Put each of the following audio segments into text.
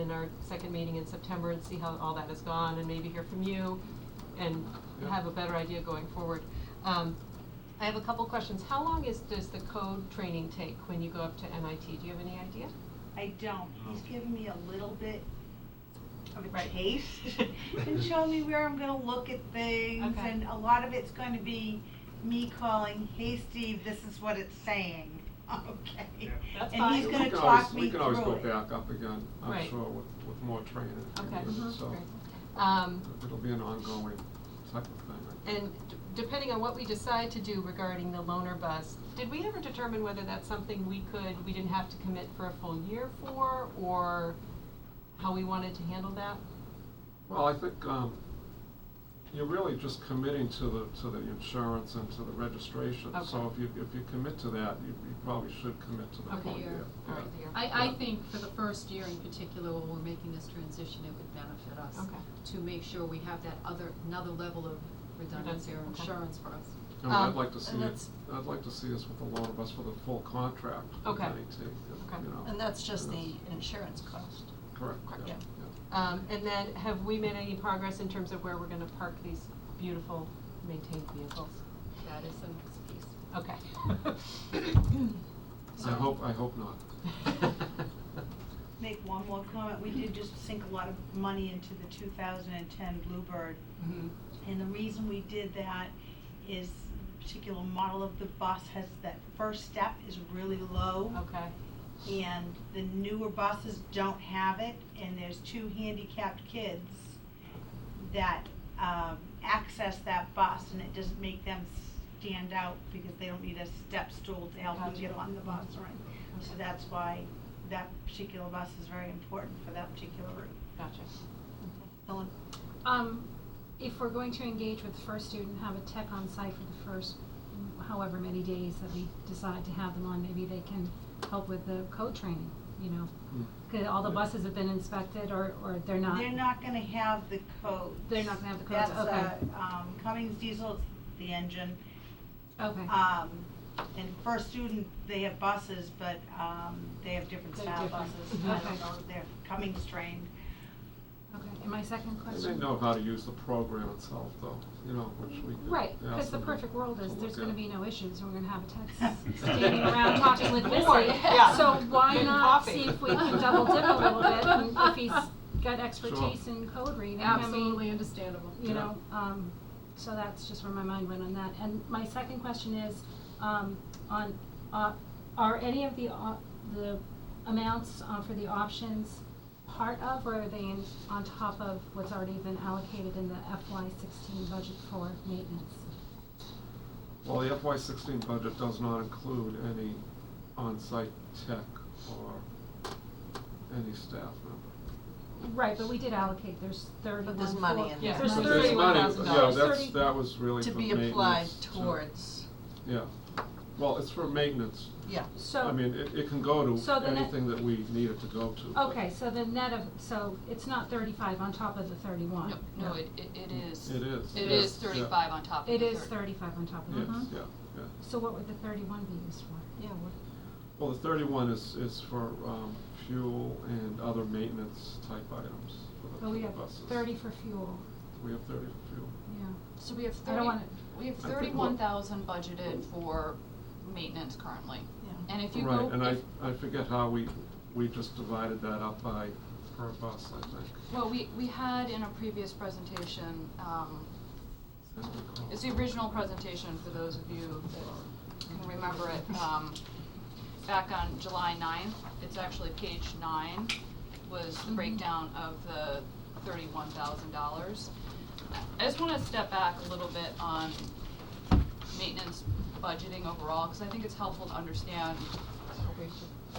in our second meeting in September and see how all that has gone, and maybe hear from you, and Yeah. have a better idea going forward. Um, I have a couple questions. How long is, does the code training take when you go up to MIT? Do you have any idea? I don't. He's Oh. given me a little bit of a Right. taste and showing me where I'm gonna look at things. Okay. And a lot of it's going to be me calling, hey, Steve, this is what it's saying, okay? Yeah. That's And fine. he's We gonna can talk always- me through it. We can always go back up again, I'm Right. sure, with, with more training. and Okay, Uh-huh. everything, Mm-hmm. So great. Um, it'll be an ongoing type of thing. I think. And d- depending on what we decide to do regarding the loaner bus, did we ever determine whether that's something we could, we didn't have to commit for a full year for, or how we wanted to handle that? Well, I think, um, you're really just committing to the, to the insurance and to the registration. So Okay. if you, if you commit to that, you, you probably should commit to the Okay. full Year. year. All yeah. right, the year. I, I think for the first year in particular, when we're making this transition, it would benefit us Okay. to make sure we have that other, another level of redundancy or Redundancy, okay. insurance for us. And I'd Um, like to see and it, that's- I'd like to see us with the loan of us for the full contract with Okay. NET, if, Okay. you know. And that's just the that's- insurance cost. Correct, correct, yeah, yeah. yeah. Um, and then have we made any progress in terms of where we're gonna park these beautiful maintained vehicles? That is the next piece. Okay. I So- hope, I hope not. Make one more comment. We did just sink a lot of money into the two thousand and ten Bluebird. Mm-hmm. Mhm. And the reason we did that is particular model of the bus has, that first step is really low. Okay, And the newer buses don't have it, and there's two handicapped kids that, um, access that bus, and it doesn't make them stand out because they don't need a step stool to help them Gotcha. get on the bus or anything. So Okay. that's why that particular bus is very important for that particular route. gotcha. Ellen? Um, if we're going to engage with the first student, have a tech on site for the first however many days that we decide to have them on, maybe they can help with the code training, you know? Mm. 'Cause all the Yeah. buses have been inspected or, or they're not? They're not gonna have the codes. They're not gonna have the codes, That's, okay. uh, um, Cummings diesel, it's the engine. Okay. Um, and first student, they have buses, but, um, they have different They're style buses. different. I Okay. don't know, they're Cummings trained. Okay, and my second They may question? know how to use the program itself, though, you know, which we could. Right, ask because the them perfect to world is, look there's gonna at. be no issues, we're gonna have a tech standing around talking with Missy. Bored, yeah. So why Getting not coffee. see if we can double dip a little bit and if he's got expertise in code reading, I mean. Absolutely understandable. you know, um, so that's just where my mind went on that. And my second question is, um, on, uh, are any of the, op- the amounts, uh, for the options part of, or are they in, on top of what's already been allocated in the FY sixteen budget for maintenance? Well, the FY sixteen budget does not include any on-site tech or any staff member. Right, but we did allocate, there's thirty-one. But there's money for- in there. There's Yeah. But There's thirty-one money- $31,000. Yeah, There's that's, thirty- that was really To for be applied maintenance, to- towards, Yeah, well, it's for maintenance. yeah. So. I mean, it, it can go So to the net- anything that we need it to go to. but Okay, so the net of, so it's not thirty-five on top of the thirty-one? No, no, it, it it is. It is, It yes, is yeah. thirty-five on top of the It thirty. is thirty-five on top of Yes, it? yeah, yeah. So what would the thirty-one be used for? Yeah, what, Well, the thirty-one is, is for, um, fuel and other maintenance type items for Well, the we for the have buses. thirty for fuel, We have thirty for fuel. yeah. So we have I don't thirty, wanna- we have I think thirty-one thousand budgeted we'll- for maintenance currently. Yeah. And if you Right, go, and I, if- I forget how we, we just divided that up by, per bus, I think. well, we, we had in a previous presentation, um, I don't recall. it's the original presentation for those of you that can remember it, um, back on July ninth, it's actually page nine, was the breakdown of the thirty-one thousand dollars. I just wanna step back a little bit on maintenance budgeting overall, cause I think it's helpful to understand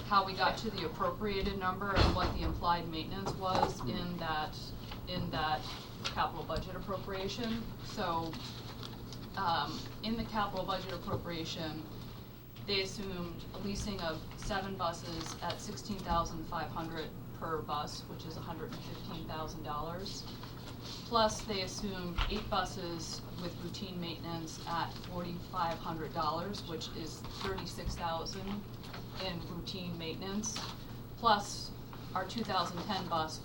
how we got to the appropriated number and what the implied maintenance was in that, in that capital budget appropriation. So, um, in the capital budget appropriation, they assumed a leasing of seven buses at sixteen thousand five hundred per bus, which is hundred and fifteen thousand dollars. Plus, they assumed eight buses with routine maintenance at forty-five hundred dollars, which is thirty-six thousand in routine maintenance. Plus, our two thousand ten bus